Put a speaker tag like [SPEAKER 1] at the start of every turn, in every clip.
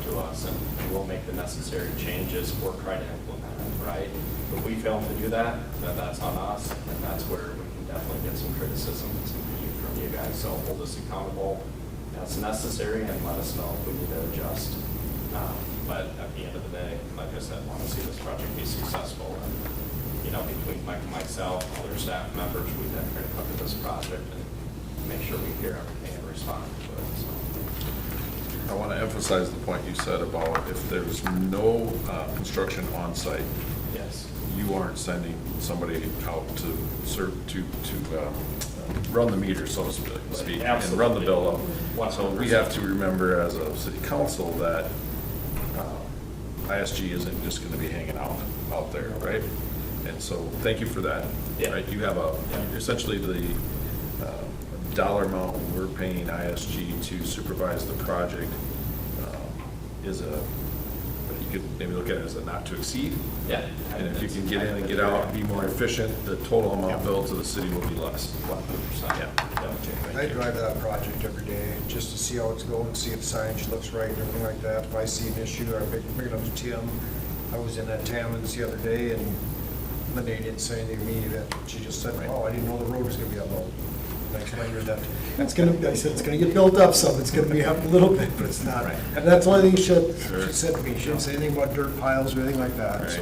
[SPEAKER 1] us, and we'll make the necessary changes or try to implement it, right? If we fail to do that, then that's on us, and that's where we can definitely get some criticism and some feedback from you guys. So hold us accountable as necessary and let us know if we need to adjust. Um, But at the end of the day, like I said, want to see this project be successful. And, you know, between Mike and myself, other staff members, we've been here to cover this project and make sure we hear everything and respond to it, so.
[SPEAKER 2] I want to emphasize the point you said about if there's no uh, construction on site,
[SPEAKER 1] Yes.
[SPEAKER 2] you aren't sending somebody out to serve, to, to um, run the meter, so to speak, and run the bill up. So we have to remember as a city council that uh, ISG isn't just going to be hanging out, out there, right? And so, thank you for that.
[SPEAKER 1] Yeah.
[SPEAKER 2] Right, You have a,
[SPEAKER 1] Yeah.
[SPEAKER 2] essentially the uh, dollar amount we're paying ISG to supervise the project um, is a, you could maybe look at it as a not to exceed.
[SPEAKER 1] Yeah.
[SPEAKER 2] And if you can get in and get out and be more efficient, the total amount billed to the city will be less.
[SPEAKER 1] One hundred percent.
[SPEAKER 2] Yeah.
[SPEAKER 3] I drive that project every day, just to see how it's going, see if signage looks right and everything like that. If I see an issue, I bring bring it up to Tim. I was in at Tammons the other day, and Linda didn't say anything to me, that she just said, oh, I didn't know the road was gonna be up low. And I explained to her that, it's gonna, I said, it's gonna get built up some, it's gonna be up a little bit, but it's not.
[SPEAKER 2] Right.
[SPEAKER 3] And that's the only thing she said,
[SPEAKER 2] Sure.
[SPEAKER 3] she said to me, she didn't say anything about dirt piles or anything like that,
[SPEAKER 2] Right,
[SPEAKER 3] so.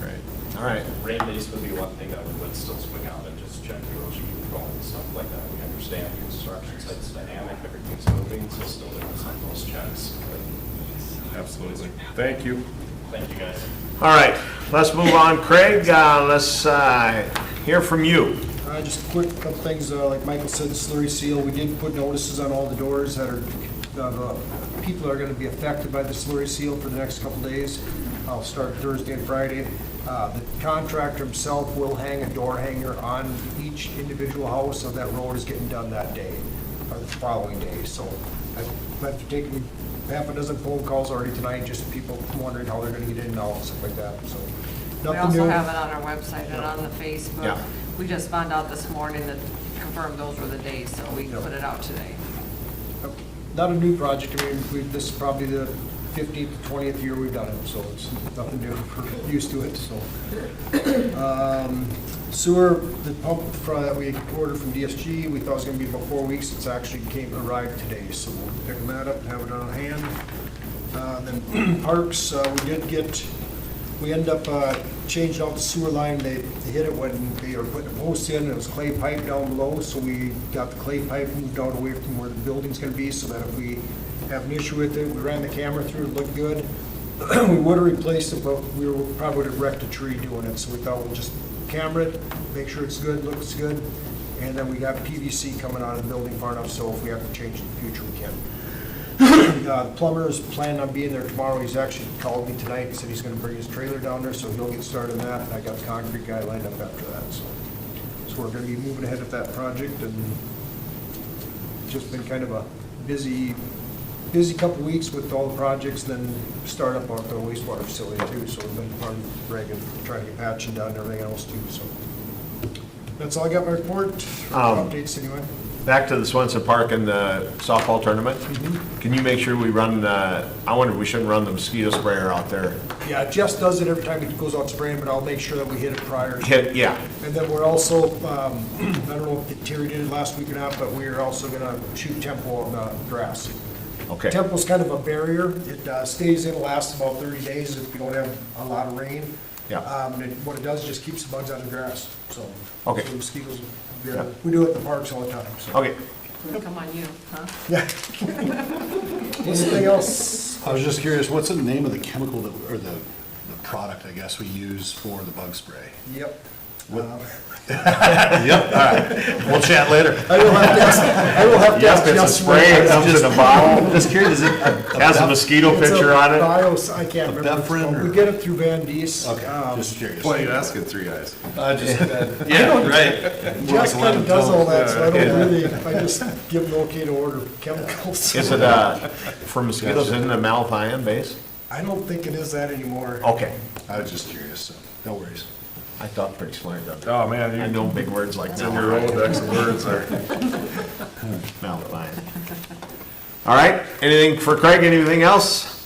[SPEAKER 2] right. All right.
[SPEAKER 1] Rain days would be one thing that we would still swing out and just check erosion control and stuff like that. We understand the construction site's dynamic, everything's moving, so still doing some of those checks.
[SPEAKER 2] Absolutely. Thank you.
[SPEAKER 1] Thank you, guys.
[SPEAKER 4] All right, let's move on. Craig, uh, let's uh, hear from you.
[SPEAKER 3] Uh, Just a quick couple things, uh, like Michael said, the slurry seal, we did put notices on all the doors that are, that the people that are gonna be affected by the slurry seal for the next couple days. I'll start Thursday and Friday. Uh, The contractor himself will hang a door hanger on each individual house, so that road is getting done that day, or the following day, so. I've I've taken half a dozen phone calls already tonight, just people wondering how they're gonna get in and out, stuff like that, so.
[SPEAKER 5] We
[SPEAKER 3] nothing
[SPEAKER 5] also
[SPEAKER 3] new.
[SPEAKER 5] have it on our website and on the Facebook.
[SPEAKER 4] Yeah.
[SPEAKER 5] We just found out this morning that confirmed those were the days, so we
[SPEAKER 3] Yeah.
[SPEAKER 5] put it out today.
[SPEAKER 3] Not a new project, I mean, we, this is probably the fifteenth, twentieth year we've done it, so it's nothing new, we're used to it, so. Um, Sewer, the pump fr- that we ordered from DSG, we thought it was gonna be about four weeks, it's actually came, arrived today, so we'll pick that up and have it on hand. Uh, then parks, uh, we did get, we end up, uh, changed out the sewer line, they they hit it when they were putting the posts in, and it was clay pipe down below, so we got the clay pipe moved out away from where the building's gonna be, so that if we have an issue with it, we ran the camera through, it looked good. We would've replaced it, but we were, probably would've wrecked a tree doing it, so we thought we'll just camera it, make sure it's good, looks good, and then we got PVC coming out of the building far enough, so if we have to change it in the future, we can. Uh, the Plumber's planning on being there tomorrow. He's actually called me tonight and said he's gonna bring his trailer down there, so he'll get started on that. And I got the concrete guy lined up after that, so. So we're gonna be moving ahead with that project and just been kind of a busy, busy couple weeks with all the projects, then start up on the wastewater facility too. So we've been on Greg and trying to get patching done and everything else too, so. That's all I got my report,
[SPEAKER 4] Um,
[SPEAKER 3] updates anyway.
[SPEAKER 4] Back to the Swenson Park and the softball tournament.
[SPEAKER 6] Mm-hmm.
[SPEAKER 4] Can you make sure we run, uh, I wonder if we shouldn't run the mosquito sprayer out there?
[SPEAKER 3] Yeah, Jess does it every time he goes out spraying, but I'll make sure that we hit it prior.
[SPEAKER 4] Hit, yeah,
[SPEAKER 3] And then we're also, um, I don't know if Terry did it last week or not, but we're also gonna shoot tempo on the grass.
[SPEAKER 4] okay.
[SPEAKER 3] Tempo's kind of a barrier. It uh, stays in, lasts about thirty days if you don't have a lot of rain.
[SPEAKER 4] Yeah.
[SPEAKER 3] Um, and what it does is just keeps the bugs out of the grass, so.
[SPEAKER 4] Okay.
[SPEAKER 3] so Mosquitoes, yeah.
[SPEAKER 4] Yeah.
[SPEAKER 3] we do it at the parks all the time, so.
[SPEAKER 4] Okay,
[SPEAKER 5] Come on you, huh?
[SPEAKER 3] Anything else?
[SPEAKER 6] I was just curious, what's the name of the chemical that, or the, the product, I guess, we use for the bug spray?
[SPEAKER 3] Yep. Um,
[SPEAKER 4] yep, all right. We'll chat later.
[SPEAKER 3] I will have to ask, I will have to ask
[SPEAKER 4] Yep, it's a
[SPEAKER 3] Jess.
[SPEAKER 4] spray,
[SPEAKER 3] when-
[SPEAKER 4] it comes in a bottle,
[SPEAKER 6] Just curious, is it a-
[SPEAKER 4] has a mosquito
[SPEAKER 3] It's a
[SPEAKER 4] picture on it.
[SPEAKER 3] bios- I can't remember. what it's
[SPEAKER 6] Beprin
[SPEAKER 3] called.
[SPEAKER 6] or-
[SPEAKER 3] We get it through Van Dees.
[SPEAKER 6] Okay,
[SPEAKER 3] um,
[SPEAKER 6] just curious.
[SPEAKER 2] Why you asking three eyes?
[SPEAKER 6] I just,
[SPEAKER 4] Yeah, right.
[SPEAKER 3] Jess
[SPEAKER 6] Like
[SPEAKER 3] kind of does all that, so I
[SPEAKER 4] Yeah.
[SPEAKER 3] don't really, I just give them okay to order chemicals.
[SPEAKER 4] Is it, uh, for mosquitoes, isn't it malathion base?
[SPEAKER 3] I don't think it is that anymore.
[SPEAKER 4] Okay,
[SPEAKER 6] I was just curious, so, no worries.
[SPEAKER 4] I thought pretty smart of that.
[SPEAKER 2] Oh, man,
[SPEAKER 4] I know big words like that.
[SPEAKER 2] in your Rolodex of words are.
[SPEAKER 4] Mount Lion. All right, anything for Craig, anything else?